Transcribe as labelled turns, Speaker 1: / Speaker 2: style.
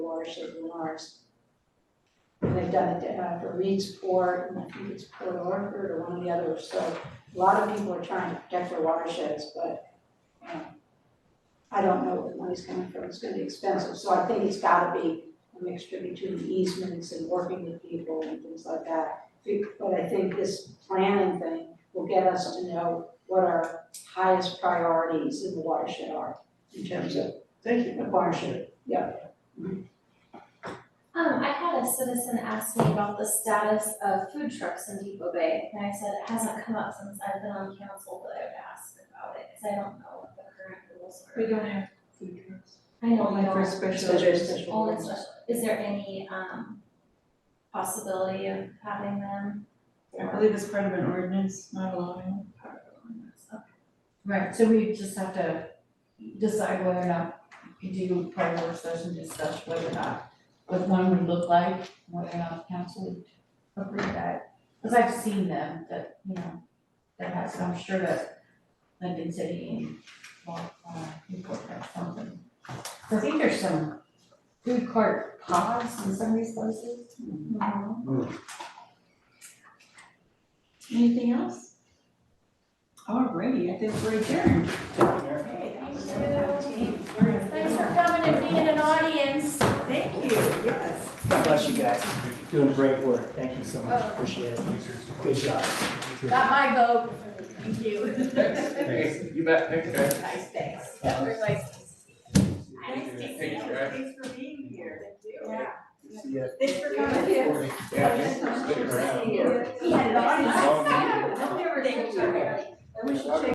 Speaker 1: watershed in ours. And they've done it uh, for Reed's Port, and I think it's Port Orford or one of the others, so a lot of people are trying to protect their watersheds, but um, I don't know where the money's coming from, it's gonna be expensive, so I think it's gotta be a mixture between easements and working with people and things like that. Be- But I think this planning thing will get us to know what our highest priorities in the watershed are in terms of
Speaker 2: Thank you.
Speaker 1: the watershed.
Speaker 3: Um, I had a citizen ask me about the status of food trucks in Depot Bay, and I said it hasn't come up since I've been on council, but I would ask about it, cause I don't know what the current rules are.
Speaker 4: We don't have food trucks.
Speaker 3: I know we
Speaker 4: Only for
Speaker 3: don't,
Speaker 4: special events.
Speaker 3: only special, is there any, um, possibility of having them?
Speaker 4: I believe it's part of an ordinance, not allowing.
Speaker 3: Part of the ordinance? Okay.
Speaker 5: Right, so we just have to decide whether or not we do part of work session discuss whether or not what one would look like, whether or not council would approve that. Cause I've seen them that, you know, that has, I'm sure that London City and well, uh, Newport have something. So I think there's some food court pods in some of these places.
Speaker 4: Anything else? Alrighty, I think we're adjourned.
Speaker 1: Okay,
Speaker 3: Thanks for coming and being an audience.
Speaker 4: Thank you, yes.
Speaker 2: God bless you guys. Doing great work. Thank you so much. Appreciate it. Good job.
Speaker 3: Got my vote. Thank you.
Speaker 6: Thanks. You bet, thanks, guys.
Speaker 3: Nice, thanks.
Speaker 2: Um,
Speaker 4: Nice to see
Speaker 6: Thanks,
Speaker 4: you,
Speaker 6: guys.
Speaker 4: thanks for being here.
Speaker 3: Yeah.
Speaker 2: See ya.
Speaker 4: Thanks for coming.
Speaker 6: Yeah, thanks for sticking around.
Speaker 4: Yeah,
Speaker 3: Yeah.
Speaker 4: nice.
Speaker 6: Long meeting.
Speaker 4: Thank you.
Speaker 6: We should check